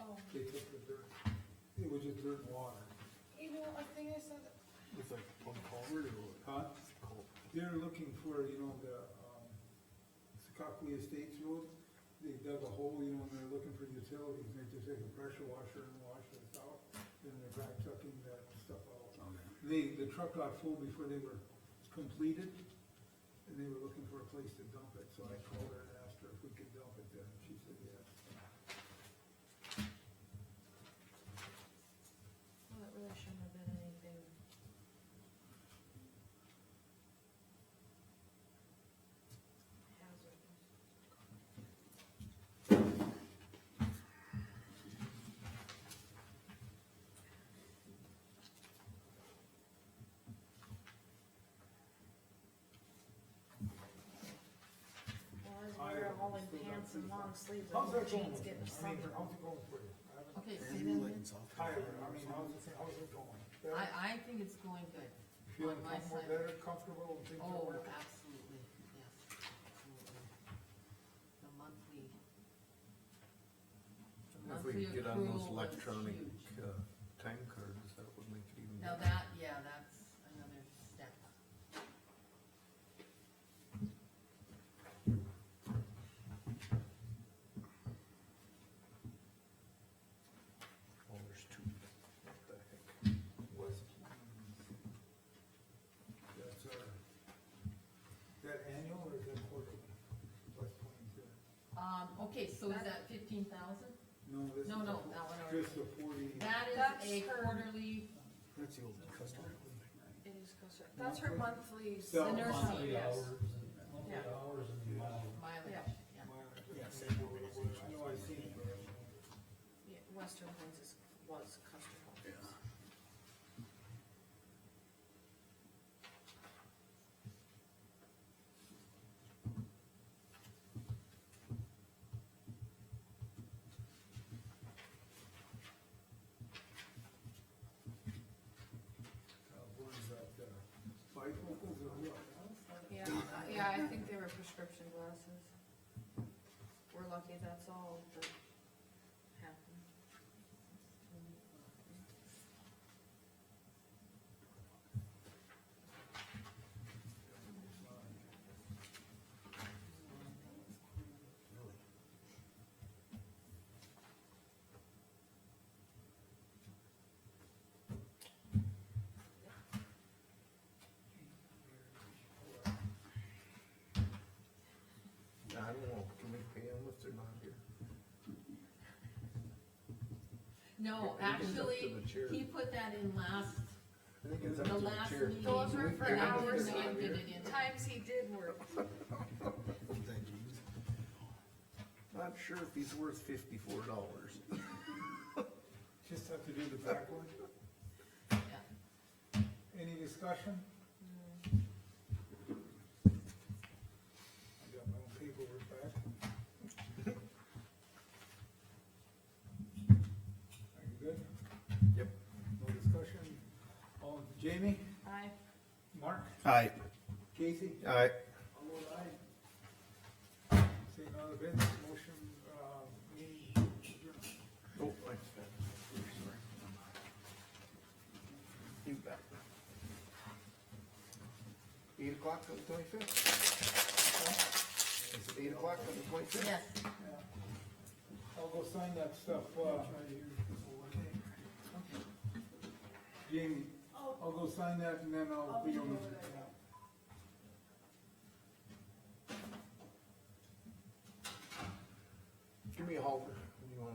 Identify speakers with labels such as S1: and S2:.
S1: Oh,
S2: they took the dirt, it was just dirt and water.
S1: You know, I think I saw that,
S3: It's like a pump culvert or what?
S2: Huh?
S3: Culvert.
S2: They're looking for, you know, the, um, Secaucus Estates Road, they dug a hole, you know, and they're looking for utilities, and they just take a pressure washer and wash it out, then they're back tucking that stuff out.
S3: Okay.
S2: They, the truck got full before they were completed, and they were looking for a place to dump it, so I called her and asked her if we could dump it there, and she said yes.
S1: well, it really shouldn't have been anything. Hazard. Well, as
S2: I
S1: we're all in
S2: still got
S1: pants and
S2: pretty
S1: long
S2: far.
S1: sleeves,
S2: How's
S1: and
S2: that going?
S1: jeans getting
S2: I mean,
S1: sunburned.
S2: how's it going for you? I haven't-
S4: Okay,
S3: Maybe
S4: say that
S3: like
S4: again.
S3: in South
S2: Tyler,
S3: Carolina
S2: I
S3: or
S2: mean,
S3: something.
S2: how's it, how's it going? Better?
S4: I, I think it's going good.
S2: Feeling
S4: on my
S2: comfortable,
S4: side.
S2: better comfortable and things are
S4: Oh,
S2: working?
S4: absolutely, yes, absolutely. The monthly. the
S3: If we
S4: monthly
S3: could get on
S4: accrual
S3: those
S4: was
S3: electronic,
S4: huge.
S3: uh, time cards, that would make it even
S4: Now
S3: better.
S4: that, yeah, that's another step.
S3: Oh, there's two. What the heck?
S2: West Plains. That's our, is that annual or is that quarterly? West Plains, yeah.
S4: Um, okay, so is that fifteen thousand?
S2: No, this is.
S4: No, no,
S2: the-
S4: that one already.
S2: Just the forty.
S4: That
S1: That's
S4: is a
S1: her-
S4: quarterly,
S3: That's the old custom. right?
S1: It is closer, that's her monthly, s-
S2: So-
S1: the nursing,
S5: Monthly
S1: yes.
S5: hours and, monthly
S1: Yeah.
S5: hours and mileage.
S4: mileage,
S1: Yeah.
S4: yeah.
S2: Yes. I know I Uh, seen it, but I don't know.
S1: Yeah, Western Plains is, was custom.
S3: Yeah.
S2: Uh, what is that, uh, bifocals or what?
S1: Yeah, uh, yeah, I think they were prescription glasses. We're lucky that's all that happened.
S3: I don't know, can we pay them if they're not here?
S4: No,
S3: It- it goes up to
S4: actually,
S3: the chair.
S4: he put that in last,
S3: I think it's up
S4: the
S3: to the
S4: last
S3: chair.
S4: meeting.
S1: Those were for
S4: and I
S1: hours
S4: forgot
S1: and
S4: to put it in.
S1: Times he did work.
S3: Thank you. Not sure if he's worth fifty-four dollars.
S2: Just have to do the back one.
S4: Yeah.
S2: Any discussion? I got my own paperwork back. Are you good?
S3: Yep.
S2: No discussion? Oh, Jamie,
S1: I,
S2: Mark,
S3: Aye.
S2: Casey?
S3: Aye.
S2: All vote aye. Seeing none of bids, motion, uh, meeting adjourned.
S3: Oh, I, sorry. You bet. Eight o'clock on the twenty-fifth? Is it eight o'clock on the twenty-fifth?
S4: Yes,
S2: I'll go sign that stuff, uh. Jamie, I'll go sign that and then I'll be on the.